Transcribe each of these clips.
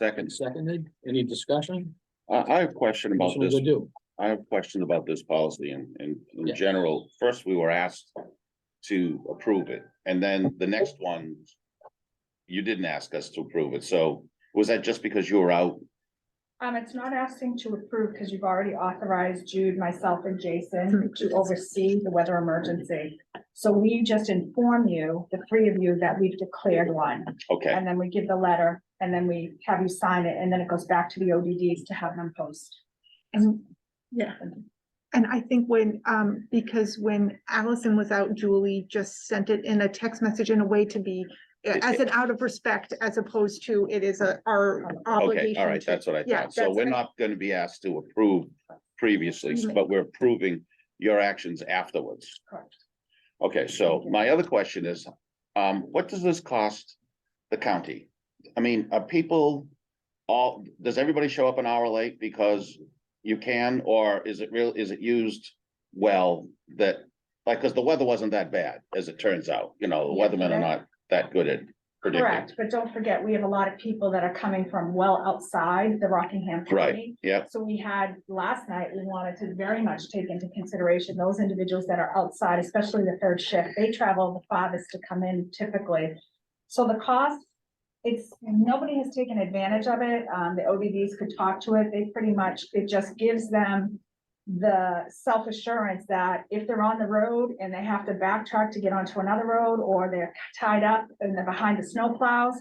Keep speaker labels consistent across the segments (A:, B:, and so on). A: And
B: Second,
A: seconded, any discussion?
B: I, I have a question about
A: Commissioner
B: this.
A: Godu?
B: I have a question about this policy and, and
A: Yeah.
B: in general, first we were asked to approve it, and then the next one, you didn't ask us to approve it, so was that just because you were out?
C: Um, it's not asking to approve because you've already authorized Jude, myself and
B: Mm-hmm.
C: Jason to oversee the weather emergency. So we just inform you, the three of you, that we've declared one,
B: Okay,
C: and then we give the letter, and then we have you sign it, and then it goes back to the ODDs to have them post.
D: And, yeah, and I think when, um, because when Allison was out, Julie just sent it in a text message in a way to be. As an out of respect, as opposed to it is a, our
B: okay,
D: obligation.
B: all right,
D: to-
B: that's what I
D: yeah,
B: thought, so
D: that's
B: we're
D: what I-
B: not gonna be asked to approve previously,
D: Mhm.
B: but we're approving your actions afterwards.
C: Correct.
B: Okay, so my other question is, um, what does this cost the county? I mean, are people all, does everybody show up an hour late because you can, or is it real, is it used well that, like, cause the weather wasn't that bad, as it turns out, you know, the
C: Yeah,
B: weathermen are not that good at predicting.
C: Correct, but don't forget, we have a lot of people that are coming from well outside the Rockingham
B: Right,
C: County.
B: yep,
C: So we had, last night, we wanted to very much take into consideration those individuals that are outside, especially the third shift. They travel the farthest to come in typically. So the cost, it's, nobody has taken advantage of it. Um, the OBDs could talk to it. They pretty much, it just gives them the self-assurance that if they're on the road and they have to backtrack to get onto another road, or they're tied up and they're behind the snowplows,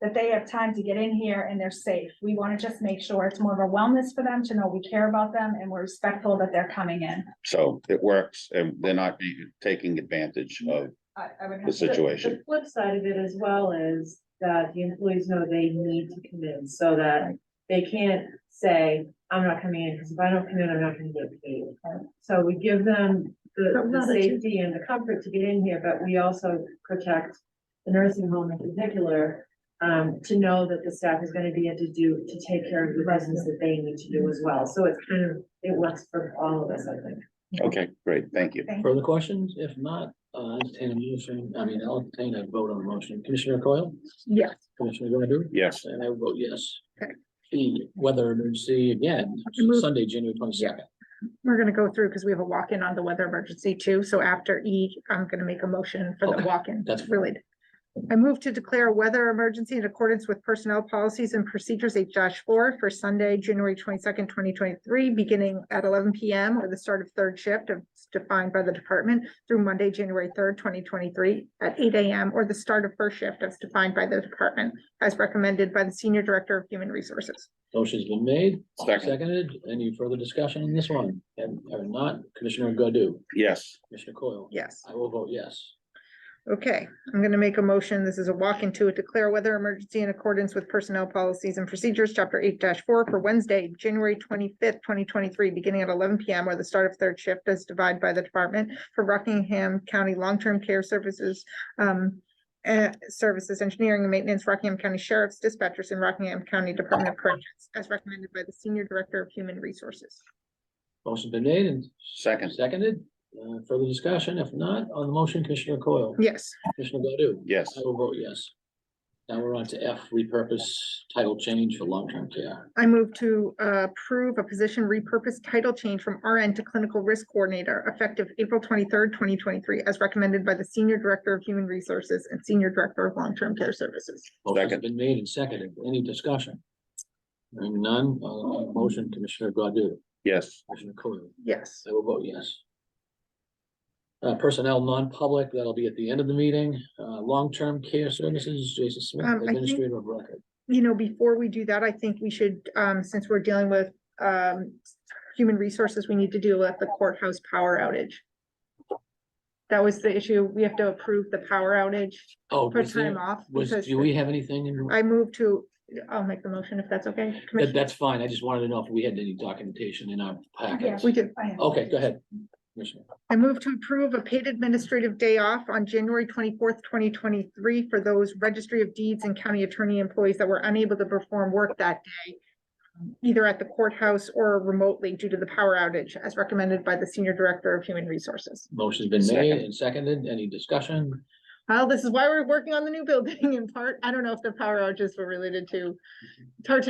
C: that they have time to get in here and they're safe. We want to just make sure it's more of a wellness for them to know we care about them and we're respectful that they're coming in.
B: so it works, and they're not be- taking advantage of
C: I, I would have
B: the situation.
E: The flip side of it as well is that the employees know they need to come in so that they can't say, I'm not coming in, because if I don't come in, I'm not gonna get paid. So we give them the,
D: But
E: the
D: not that you-
E: safety and the comfort to get in here, but we also protect the nursing home in particular, um, to know that the staff is gonna be able to do, to take care of the residents that they need to do as well. So it's kind of, it works for all of us, I think.
B: Okay, great, thank you.
A: Further questions? If not, uh, entertain a motion, I mean, I'll entertain a vote on the motion. Commissioner Coyle?
D: Yes,
A: Commissioner Godu?
B: Yes,
A: And I vote yes.
D: Okay.
A: The weather emergency again,
D: Move-
A: Sunday, January twenty-second.
D: we're gonna go through because we have a walk-in on the weather emergency too, so after E, I'm gonna make a motion for the
A: Okay,
D: walk-in.
A: that's fine.
D: Related. I move to declare a weather emergency in accordance with personnel policies and procedures eight four for Sunday, January twenty-second, twenty twenty-three, beginning at eleven PM or the start of third shift of defined by the department through Monday, January third, twenty twenty-three at eight AM or the start of first shift as defined by the department as recommended by the Senior Director of Human Resources.
A: Motion's been made,
B: second,
A: seconded. Any further discussion on this one? And, or not, Commissioner Godu?
B: yes,
A: Commissioner Coyle?
D: Yes.
A: I will vote yes.
D: Okay, I'm gonna make a motion. This is a walk into it, declare weather emergency in accordance with personnel policies and procedures, chapter eight four for Wednesday, January twenty-fifth, twenty twenty-three, beginning at eleven PM or the start of third shift as divided by the Department for Rockingham County Long-Term Care Services, um, eh, Services Engineering and Maintenance, Rockingham County Sheriff's Dispatchers and Rockingham County Department of Corrections, as recommended by the Senior Director of Human Resources.
A: Motion's been made and
B: second,
A: Seconded, uh, further discussion, if not, on the motion, Commissioner Coyle,
D: Yes,
A: Commissioner Godu?
B: yes.
A: I will vote yes. Now we're on to F, repurpose title change for long-term care.
D: I move to uh, approve a position repurpose title change from RN to Clinical Risk Coordinator effective April twenty-third, twenty twenty-three, as recommended by the Senior Director of Human Resources and Senior Director of Long-Term Care Services.
A: Motion's
B: Second.
A: been made and seconded, any discussion? Hearing none, uh, on the motion, Commissioner Godu,
B: Yes,
A: Commissioner Coyle,
D: Yes.
A: I will vote yes. Uh, personnel non-public, that'll be at the end of the meeting, uh, long-term care services, Jason Smith,
D: Um, I think-
A: administrator of record.
D: You know, before we do that, I think we should, um, since we're dealing with um, human resources, we need to deal with the courthouse power outage. That was the issue. We have to approve the power outage
A: Oh,
D: for
A: was
D: time
A: there,
D: off.
A: was,
D: because
A: do we have anything in?
D: I move to, I'll make the motion if that's okay.
A: That,
D: Commissioner.
A: that's fine. I just wanted to know if we had any documentation in our packets.
D: We do.
C: I am.
A: Okay, go ahead. Commissioner.
D: I move to approve a paid administrative day off on January twenty-fourth, twenty twenty-three for those registry of deeds and county attorney employees that were unable to perform work that day, um, either at the courthouse or remotely due to the power outage, as recommended by the Senior Director of Human Resources.
A: Motion's been made
B: Second.
A: and seconded. Any discussion?
D: Well, this is why we're working on the new building in part. I don't know if the power outages were related to, it's hard to